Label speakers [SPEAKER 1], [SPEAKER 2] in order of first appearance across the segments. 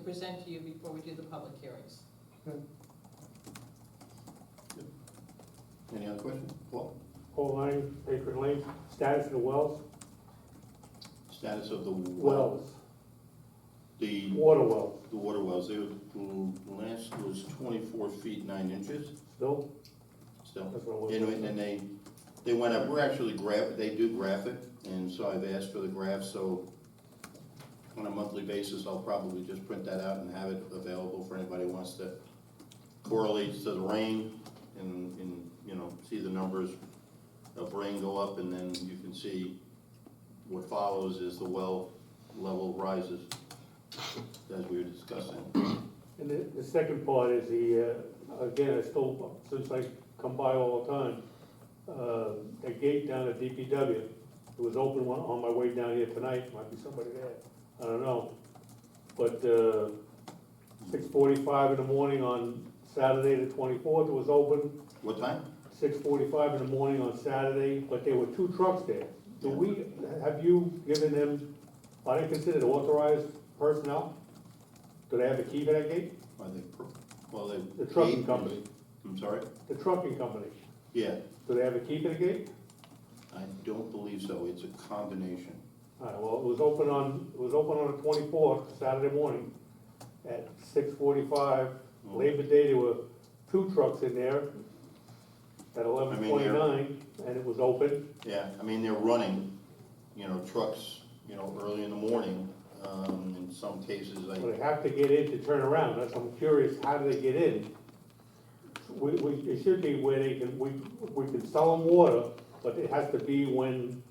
[SPEAKER 1] present to you before we do the public hearings.
[SPEAKER 2] Any other questions? Paul,
[SPEAKER 3] Pole line, Patriot Lane, status of the wells,
[SPEAKER 2] status of the well,
[SPEAKER 3] wells,
[SPEAKER 2] the,
[SPEAKER 3] water wells,
[SPEAKER 2] the water wells, they were, the last was twenty-four feet, nine inches,
[SPEAKER 3] still,
[SPEAKER 2] still.
[SPEAKER 3] that's what it
[SPEAKER 2] And,
[SPEAKER 3] was.
[SPEAKER 2] and they, they went up, we're actually graph, they do graph it, and so I've asked for the graph, so on a monthly basis, I'll probably just print that out and have it available for anybody who wants to correlate to the rain and, and, you know, see the numbers of rain go up, and then you can see what follows is the well level rises, as we were discussing.
[SPEAKER 3] And the, the second part is the, uh, again, I still, since I come by all the time, uh, the gate down at DPW, it was open on, on my way down here tonight, might be somebody there, I don't know. But, uh, six forty-five in the morning on Saturday the twenty-fourth, it was open,
[SPEAKER 2] What time?
[SPEAKER 3] six forty-five in the morning on Saturday, but there were two trucks there. Do we, have you given them, are they considered authorized personnel? Do they have a key to that gate?
[SPEAKER 2] Are they, pro- well, they.
[SPEAKER 3] The trucking company,
[SPEAKER 2] I'm sorry?
[SPEAKER 3] the trucking company,
[SPEAKER 2] Yeah,
[SPEAKER 3] do they have a key to the gate?
[SPEAKER 2] I don't believe so, it's a combination.
[SPEAKER 3] All right, well, it was open on, it was open on the twenty-fourth, Saturday morning, at six forty-five. Labor Day, there were two trucks in there at
[SPEAKER 2] I
[SPEAKER 3] eleven
[SPEAKER 2] mean, they're-
[SPEAKER 3] twenty-nine, and it was open.
[SPEAKER 2] Yeah, I mean, they're running, you know, trucks, you know, early in the morning, um, in some cases,
[SPEAKER 3] But
[SPEAKER 2] I,
[SPEAKER 3] they have to get in to turn around, that's, I'm curious, how do they get in? We, we, it should be where they can, we, we can sell them water, but it has to be when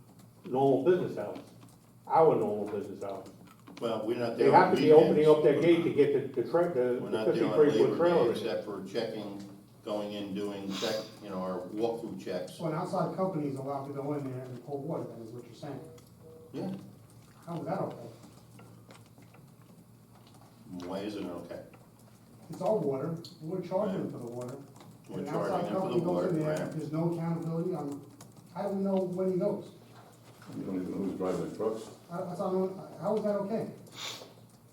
[SPEAKER 3] normal business hours, our normal business hours.
[SPEAKER 2] well, we're not there.
[SPEAKER 3] They have
[SPEAKER 2] on
[SPEAKER 3] to be opening
[SPEAKER 2] weekends.
[SPEAKER 3] up that gate to get the, the tra the
[SPEAKER 2] We're
[SPEAKER 3] the
[SPEAKER 2] not there on
[SPEAKER 3] fifty-three foot
[SPEAKER 2] Labor
[SPEAKER 3] trailer.
[SPEAKER 2] Day,
[SPEAKER 3] in.
[SPEAKER 2] except for checking, going in, doing check, you know, our walkthrough checks.
[SPEAKER 4] So an outside company is allowed to go in there and pull water, that is what you're saying.
[SPEAKER 2] Yeah,
[SPEAKER 4] How is that okay?
[SPEAKER 2] why isn't it okay?
[SPEAKER 4] It's all water, we're charging them for the water.
[SPEAKER 2] We're
[SPEAKER 4] An outside
[SPEAKER 2] charging them for the
[SPEAKER 4] company goes
[SPEAKER 2] water,
[SPEAKER 4] in there,
[SPEAKER 2] right?
[SPEAKER 4] There's no accountability, I'm, I don't know when he goes.
[SPEAKER 5] You don't even know who's driving the trucks.
[SPEAKER 4] I, I don't, know- how is that okay?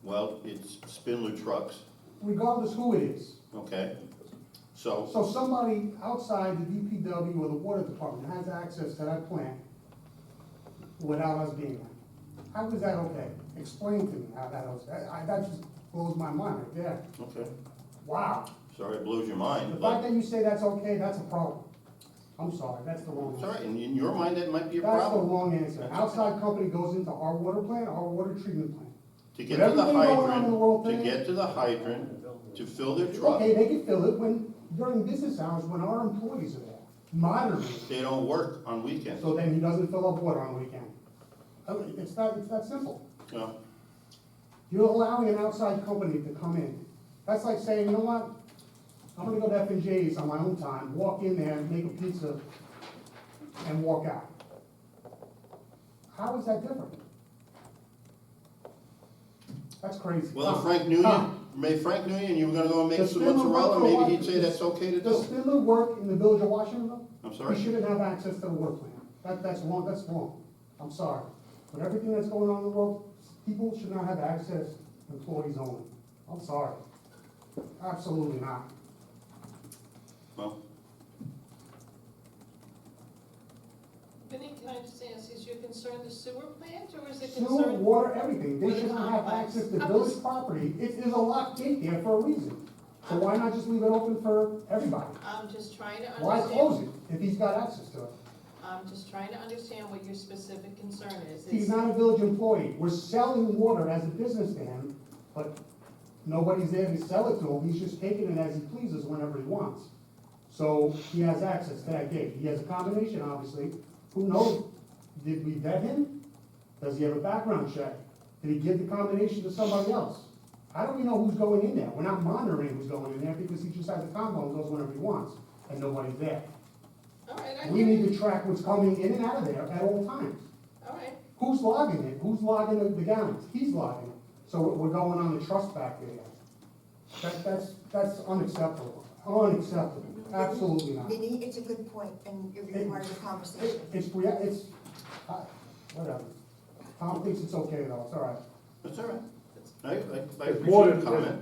[SPEAKER 2] Well, it's Spindler trucks,
[SPEAKER 4] Regardless who it is.
[SPEAKER 2] okay? So,
[SPEAKER 4] So somebody outside the DPW or the water department has access to that plant without us being there. How is that okay? Explain to me how that was, I, I- that just blows my mind right there.
[SPEAKER 2] okay,
[SPEAKER 4] Wow.
[SPEAKER 2] sorry it blows your
[SPEAKER 4] The
[SPEAKER 2] mind,
[SPEAKER 4] fact
[SPEAKER 2] but,
[SPEAKER 4] that you say that's okay, that's a problem. I'm sorry, that's the wrong
[SPEAKER 2] it's all
[SPEAKER 4] answer.
[SPEAKER 2] right, in, in your mind, that might be a
[SPEAKER 4] That's the
[SPEAKER 2] problem.
[SPEAKER 4] wrong answer. An Outside company goes into our water plant, our water treatment plant.
[SPEAKER 2] To get
[SPEAKER 4] With
[SPEAKER 2] to the
[SPEAKER 4] everything going on in the world
[SPEAKER 2] hydrant, to
[SPEAKER 4] today-
[SPEAKER 2] get to the hydrant, to fill their truck,
[SPEAKER 4] Okay, they can fill it when, during business hours, when our employees are there, monitoring.
[SPEAKER 2] they don't work on weekends.
[SPEAKER 4] So then he doesn't fill up water on weekend. I mean, It's that, it's that simple.
[SPEAKER 2] No,
[SPEAKER 4] You're allowing an outside company to come in. That's like saying, you know what? I'm gonna go to F and J's on my own time, walk in there, make a pizza, and walk out. How is that different? That's crazy.
[SPEAKER 2] Well, if
[SPEAKER 4] Tom,
[SPEAKER 2] Frank Nguyen,
[SPEAKER 4] Tom,
[SPEAKER 2] may Frank Nguyen, you were gonna go and make
[SPEAKER 4] Does
[SPEAKER 2] some
[SPEAKER 4] Spindler work
[SPEAKER 2] mozzarella,
[SPEAKER 4] for
[SPEAKER 2] maybe
[SPEAKER 4] what?
[SPEAKER 2] he'd say that's okay to
[SPEAKER 4] Does
[SPEAKER 2] do.
[SPEAKER 4] Spindler work in the village of Washingtonville?
[SPEAKER 2] I'm
[SPEAKER 4] He
[SPEAKER 2] sorry,
[SPEAKER 4] shouldn't have access to the work plan. That, that's wrong, that's wrong. I'm sorry. With everything that's going on in the world, people should not have access, employees only. I'm sorry. Absolutely not.
[SPEAKER 2] well,
[SPEAKER 1] Vinnie, can I just ask, is your concern the sewer plant or is it
[SPEAKER 4] Sewer,
[SPEAKER 1] concerned?
[SPEAKER 4] water, everything, they should not have access to village property. It is a locked gate there for a reason. So why not just leave it open for everybody?
[SPEAKER 1] I'm just trying to understand.
[SPEAKER 4] Why close it if he's got access to it?
[SPEAKER 1] I'm just trying to understand what your specific concern is.
[SPEAKER 4] He's
[SPEAKER 1] Is-
[SPEAKER 4] not a village employee. We're selling water as a business to him, but nobody's there to sell it to him. He's just taking it as he pleases whenever he wants. So he has access to that gate. He has a combination, obviously. Who knows? Did we vet him? Does he have a background check? Did he give the combination to somebody else? How do we know who's going in there? We're not monitoring who's going in there because he just has the combo and goes whenever he wants, and nobody's there.
[SPEAKER 1] All right, I
[SPEAKER 4] We
[SPEAKER 1] hear
[SPEAKER 4] need
[SPEAKER 1] you.
[SPEAKER 4] to track what's coming in and out of there at all times.
[SPEAKER 1] All right,
[SPEAKER 4] Who's logging it? Who's logging the- the gallons? He's logging it. So we're- we're going on the trust factor here. That, that's, that's unacceptable, unacceptable, absolutely not. It-
[SPEAKER 6] Vinny, it's a good point, and it requires a conversation.
[SPEAKER 4] It's, rea- it's, uh, whatever. Tom thinks it's okay though, it's all right.
[SPEAKER 2] that's all right.
[SPEAKER 1] That's-
[SPEAKER 2] I, I- I
[SPEAKER 3] It's more
[SPEAKER 2] appreciate the
[SPEAKER 3] than-
[SPEAKER 2] comment.